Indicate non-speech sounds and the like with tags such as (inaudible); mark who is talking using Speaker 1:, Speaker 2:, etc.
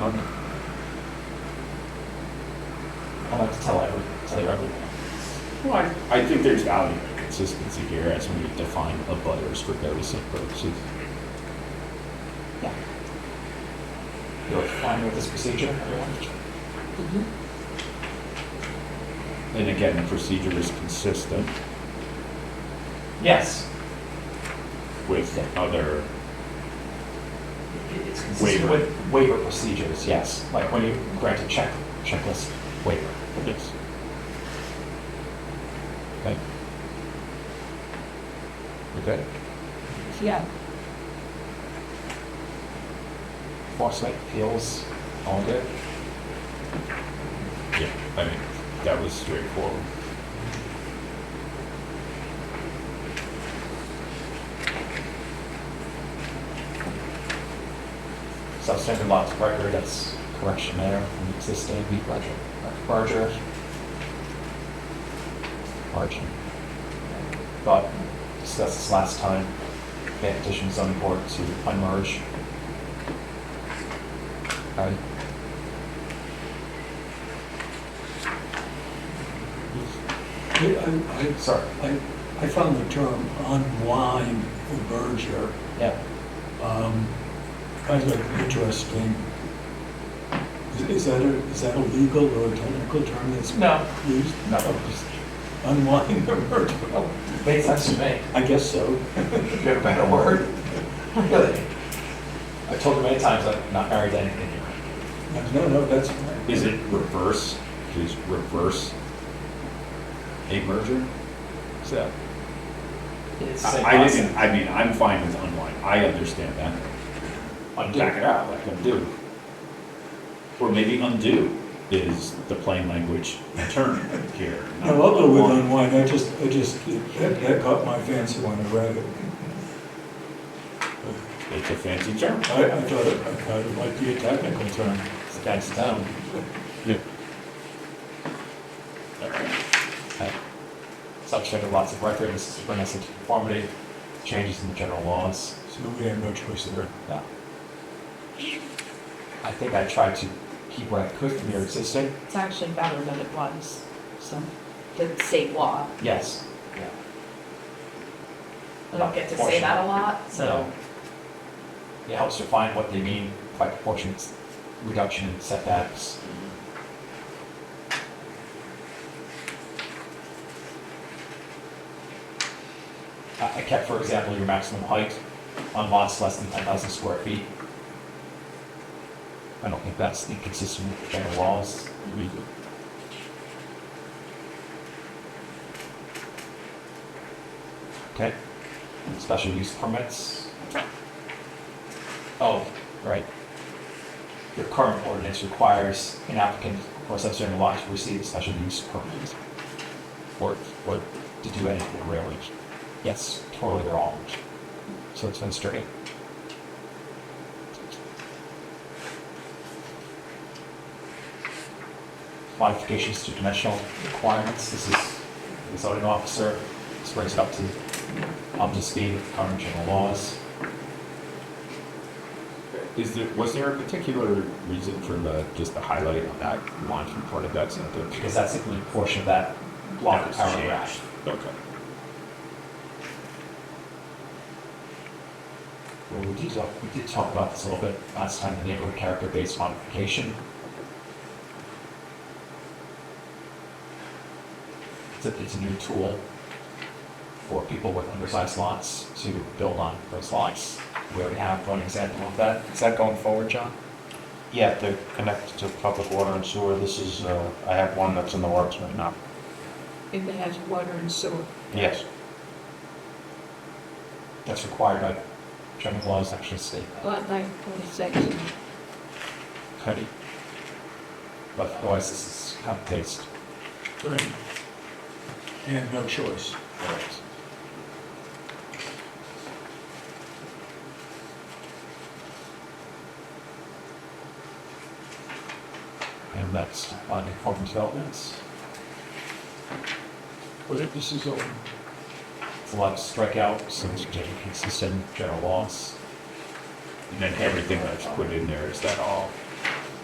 Speaker 1: on it. I'll have to tell every, tell you everything.
Speaker 2: Well, I- I think there's value in consistency here as we define a butters for noticing purposes.
Speaker 1: You're fine with this procedure, everyone?
Speaker 3: Mm-hmm.
Speaker 2: And again, the procedure is consistent
Speaker 1: Yes.
Speaker 2: with other,
Speaker 1: It's consistent
Speaker 2: Waiver.
Speaker 1: with waiver procedures, yes, like when you grant a check, checklist waiver.
Speaker 2: yes. Okay. Okay,
Speaker 3: Yeah,
Speaker 1: Enforcement appeals, all good.
Speaker 2: yeah, I mean, that was straightforward.
Speaker 1: Substantive lots of record, that's correction there from the existing larger, larger. Margin. But discussed this last time, get petition zoning board to unmerge. Alright.
Speaker 4: I, I,
Speaker 1: Sorry,
Speaker 4: I, I found the term unwind or merger,
Speaker 1: yeah,
Speaker 4: um, kind of interesting. Is- Is that a, is that a legal or a technical term that's
Speaker 1: no,
Speaker 4: used? Oh,
Speaker 1: No.
Speaker 4: Just Unwind or merger? Well,
Speaker 1: makes sense to (laughs) me.
Speaker 4: I guess so.
Speaker 1: You have Oh, a better word? Really? I told her many times I'm not married to anything here.
Speaker 4: No, no, that's fine.
Speaker 2: Is it reverse, is reverse a merger? Is that?
Speaker 1: It's the same
Speaker 2: I I
Speaker 1: concept.
Speaker 2: didn't, I mean, I'm fine with unwind, I understand that.
Speaker 1: Undo.
Speaker 2: Back it out, like undo. Or maybe undo is the plain language term here. not
Speaker 4: No, I'll go with
Speaker 2: unwind.
Speaker 4: unwind, I just, I just, that, that caught my fancy when I read it.
Speaker 2: It's a fancy term.
Speaker 4: I, I thought it, I thought it might be a technical term.
Speaker 1: It's against them. Subject lots of record, this is bringing us into conformity, changes in the general laws.
Speaker 4: So we have no choice there.
Speaker 1: Yeah. I think I tried to keep what I could from your existing.
Speaker 3: it's actually better than it was, so, the state law.
Speaker 1: Yes. Yeah.
Speaker 3: I don't get to say that a lot, so,
Speaker 1: So it helps define what they mean by proportionate reduction in setbacks. I I kept, for example, your maximum height on lots less than ten thousand square feet. I don't think that's inconsistent with general laws. Okay. Special use permits. Oh, right. Your current ordinance requires an applicant or subsurban lot to receive a special use permit. Or, or to do anything really. Yes, totally wrong. So it's been straight. Modifications to dimensional requirements, this is the zoning officer, this brings it up to, up to speed with current general laws.
Speaker 2: Is there, was there a particular reason for the, just the highlight on that launching part of that sentence?
Speaker 1: because that's the only portion of that
Speaker 2: That
Speaker 1: block of
Speaker 2: was
Speaker 1: paragraph.
Speaker 2: changed. Okay.
Speaker 1: Well, we did talk, we did talk about this a little bit last time, the neighborhood character-based modification. It's a, it's a new tool for people with undersized lots to build on those lots. We already have one example of that. Is that going forward, John?
Speaker 5: Yeah, they're connected to public water and sewer. This is, uh, I have one that's in the works right now.
Speaker 3: if it has water and sewer.
Speaker 5: Yes.
Speaker 1: That's required by general laws, actually state that.
Speaker 3: Lot nine forty-six,
Speaker 1: Cody. But otherwise, this is copy-paste.
Speaker 4: Right. And no choice.
Speaker 1: And that's on conforming developments.
Speaker 4: But this is all,
Speaker 1: It's a lot of strikeouts and getting consistent general laws.
Speaker 2: And then everything that's put in there, is that all